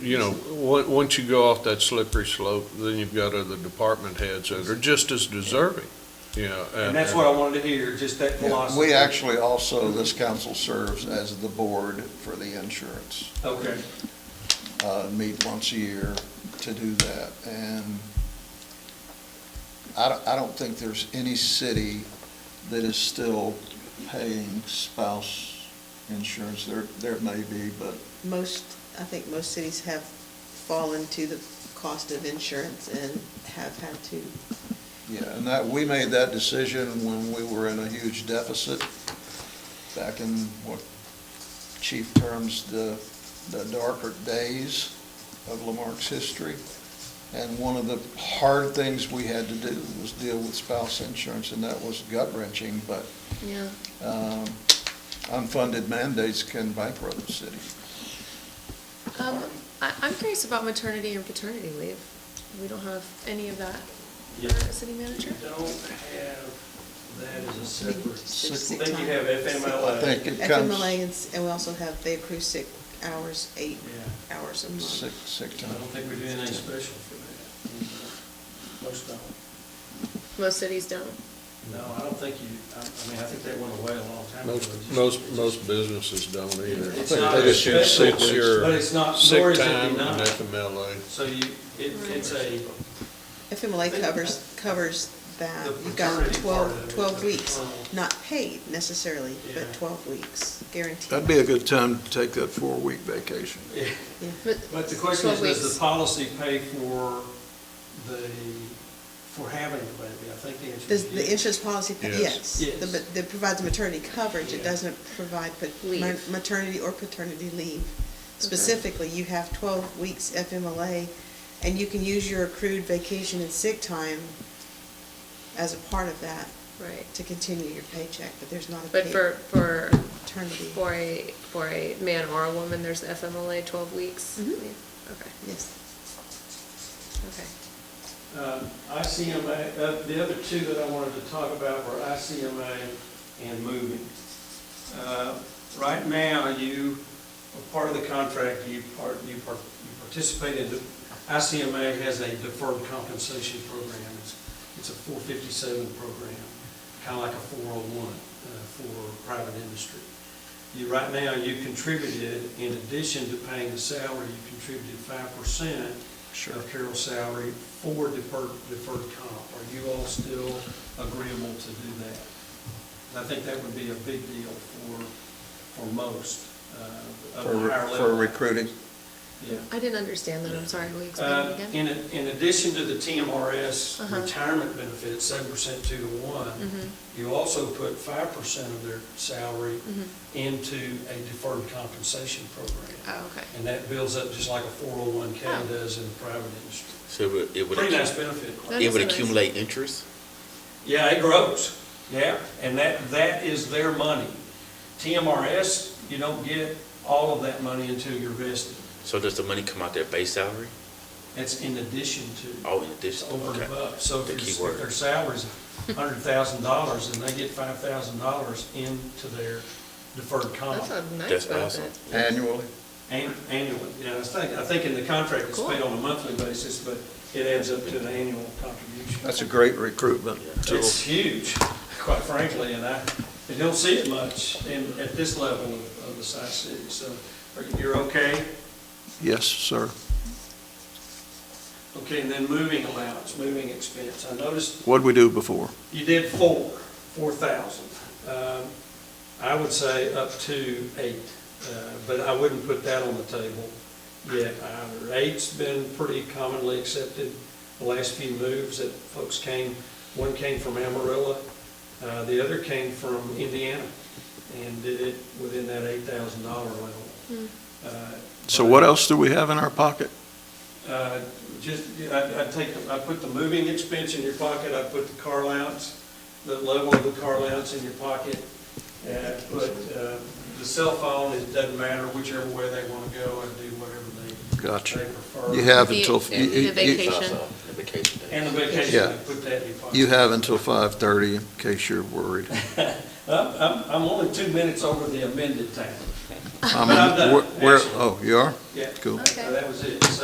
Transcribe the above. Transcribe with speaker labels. Speaker 1: you know, on- once you go off that slippery slope, then you've got other department heads that are just as deserving, you know.
Speaker 2: And that's what I wanted to hear, just that
Speaker 3: Yeah,
Speaker 2: philosophy.
Speaker 3: We actually also, this council serves as the board for the insurance,
Speaker 2: Okay,
Speaker 3: uh, meet once a year to do that. And I don't, I don't think there's any city that is still paying spouse insurance. There, there may be, but
Speaker 4: Most, I think most cities have fallen to the cost of insurance and have had to.
Speaker 3: Yeah, and that, we made that decision when we were in a huge deficit back in what chief terms the, the darker days of Lamarck's history. And one of the hard things we had to do was deal with spouse insurance, and that was gut wrenching, but,
Speaker 4: Yeah.
Speaker 3: um, unfunded mandates can bankrupt the city.
Speaker 5: Um, I, I'm curious about maternity and paternity leave. We don't have any of that for
Speaker 2: Yeah.
Speaker 5: a city manager?
Speaker 2: you don't have, that as a separate,
Speaker 3: Sick-
Speaker 4: Sick
Speaker 2: I think you have
Speaker 4: time.
Speaker 3: I
Speaker 2: FMLA.
Speaker 3: think it comes
Speaker 4: FMLA, and s- and we also have, they accrue sick hours, eight
Speaker 2: Yeah.
Speaker 4: hours a month.
Speaker 3: sick, sick
Speaker 2: I
Speaker 3: time.
Speaker 2: don't think we do anything special for that. Most don't.
Speaker 5: Most cities don't.
Speaker 2: No, I don't think you, I, I mean, I think that went away a long time ago.
Speaker 1: Most, most, most businesses don't either.
Speaker 2: It's
Speaker 1: I think
Speaker 2: not
Speaker 1: they just use
Speaker 2: special,
Speaker 1: six year
Speaker 2: but it's not- nor
Speaker 1: sick
Speaker 2: is it
Speaker 1: time and
Speaker 2: denied.
Speaker 1: FMLA.
Speaker 2: So you, it, it's a,
Speaker 4: FMLA covers, covers that.
Speaker 2: The
Speaker 4: You've got
Speaker 2: paternity part of
Speaker 4: 12,
Speaker 2: it,
Speaker 4: 12
Speaker 2: the
Speaker 4: weeks,
Speaker 2: paternal.
Speaker 4: not paid necessarily, but
Speaker 2: Yeah.
Speaker 4: 12 weeks guaranteed.
Speaker 3: That'd be a good time to take that four-week vacation.
Speaker 4: Yeah.
Speaker 2: but the question is,
Speaker 5: 12
Speaker 2: does
Speaker 5: weeks.
Speaker 2: the policy pay for the, for having the baby? I think the answer
Speaker 4: Does
Speaker 2: is
Speaker 4: the
Speaker 2: yes.
Speaker 4: insurance policy, pa-
Speaker 1: Yes.
Speaker 4: yes. The-
Speaker 2: Yes.
Speaker 4: But it provides maternity coverage, it
Speaker 2: Yeah.
Speaker 4: doesn't provide pa- ma-
Speaker 5: Leave.
Speaker 4: maternity or paternity leave. Specifically, you have twelve weeks FMLA, and you can use your accrued vacation and sick time as a part of that
Speaker 5: Right.
Speaker 4: to continue your paycheck, but there's not a
Speaker 5: But
Speaker 4: paid
Speaker 5: for, for,
Speaker 4: maternity.
Speaker 5: for a, for a man or a woman, there's FMLA twelve weeks?
Speaker 4: Mhm.
Speaker 5: leave? Okay,
Speaker 4: Yes.
Speaker 5: okay.
Speaker 2: Uh, ICMA, uh, the other two that I wanted to talk about were ICMA and moving. Uh, Right now, you, are part of the contract, you part, you par- you participate in, the- ICMA has a deferred compensation program. It's- It's a 457 program, kind of like a 401 uh, for private industry. You, right now, you contributed, in addition to paying the salary, you contributed 5%
Speaker 3: Sure.
Speaker 2: of Carol's salary for deferred, deferred comp. Are you all still agreeable to do that? And I think that would be a big deal for, for most uh, of the
Speaker 3: For,
Speaker 2: higher
Speaker 3: for
Speaker 2: level.
Speaker 3: recruiting.
Speaker 2: Yeah.
Speaker 5: I didn't understand that, I'm sorry, will you explain
Speaker 2: Uh,
Speaker 5: it
Speaker 2: In,
Speaker 5: again?
Speaker 2: a- in addition to the
Speaker 5: Uh-huh.
Speaker 2: TMRS retirement benefits, seven percent two to one,
Speaker 5: Mhm,
Speaker 2: you also put five percent of their salary
Speaker 5: mhm.
Speaker 2: into a deferred compensation program.
Speaker 5: Oh, okay.
Speaker 2: And that builds up just like a four oh one K
Speaker 5: Oh.
Speaker 2: does in the private industry.
Speaker 6: So it would, it would,
Speaker 2: Pretty nice
Speaker 6: accu-
Speaker 2: benefit.
Speaker 5: That
Speaker 6: it
Speaker 5: is
Speaker 6: would
Speaker 5: nice.
Speaker 6: accumulate interest?
Speaker 2: Yeah, it grows, yeah, and that, that is their money. TMRS, you don't get all of that money until you're vested.
Speaker 6: So does the money come out their base salary?
Speaker 2: That's in addition to,
Speaker 6: Oh, in
Speaker 2: it's
Speaker 6: addition,
Speaker 2: over and
Speaker 6: okay.
Speaker 2: above. So if
Speaker 6: The
Speaker 2: your-
Speaker 6: key
Speaker 2: if
Speaker 6: word.
Speaker 2: their salary's hundred thousand dollars, and they get five thousand dollars into their deferred
Speaker 5: That's
Speaker 2: comp
Speaker 5: a nice
Speaker 6: That's
Speaker 5: benefit.
Speaker 6: awesome.
Speaker 3: Annually?
Speaker 2: an- annually. Yeah, I think, I think in the contract it's paid
Speaker 5: Cool.
Speaker 2: on a monthly basis, but it adds up to an annual contribution.
Speaker 3: That's a great recruitment tool.
Speaker 2: It's huge, quite frankly, and I, I don't see it much in, at this level of of the size city, so are- you're okay?
Speaker 3: Yes, sir.
Speaker 2: Okay, and then moving allowance, moving expense, I noticed
Speaker 3: What'd we do before?
Speaker 2: you did four, four thousand. Um, I would say up to eight, uh, but I wouldn't put that on the table yet either. Eight's been pretty commonly accepted, the last few moves that folks came, one came from Amarillo, uh, the other came from Indiana, and did it within that eight thousand dollar level. Uh,
Speaker 3: So what else do we have in our pocket?
Speaker 2: uh, Just, I, I take, I put the moving expense in your pocket, I put the car allowance, the level of the car allowance in your pocket, and I put, uh, the cell phone, it doesn't matter whichever way they want to go and do whatever they, they
Speaker 3: Gotcha.
Speaker 2: prefer.
Speaker 3: You have
Speaker 5: The-
Speaker 3: until,
Speaker 5: the-
Speaker 3: you,
Speaker 5: the
Speaker 3: you- you,
Speaker 5: vacation.
Speaker 6: The vacation days.
Speaker 2: And the vacation,
Speaker 3: Yeah.
Speaker 2: I put that in your pocket.
Speaker 3: you have until five-thirty in case you're worried.
Speaker 2: I'm, I'm, I'm only two minutes over the amended time.
Speaker 3: I
Speaker 2: But I'm
Speaker 3: mean,
Speaker 2: done,
Speaker 3: where- oh, where,
Speaker 2: actually.
Speaker 3: oh, you are?
Speaker 2: Yeah.
Speaker 3: Cool.
Speaker 2: So
Speaker 5: Okay.
Speaker 2: that was it. So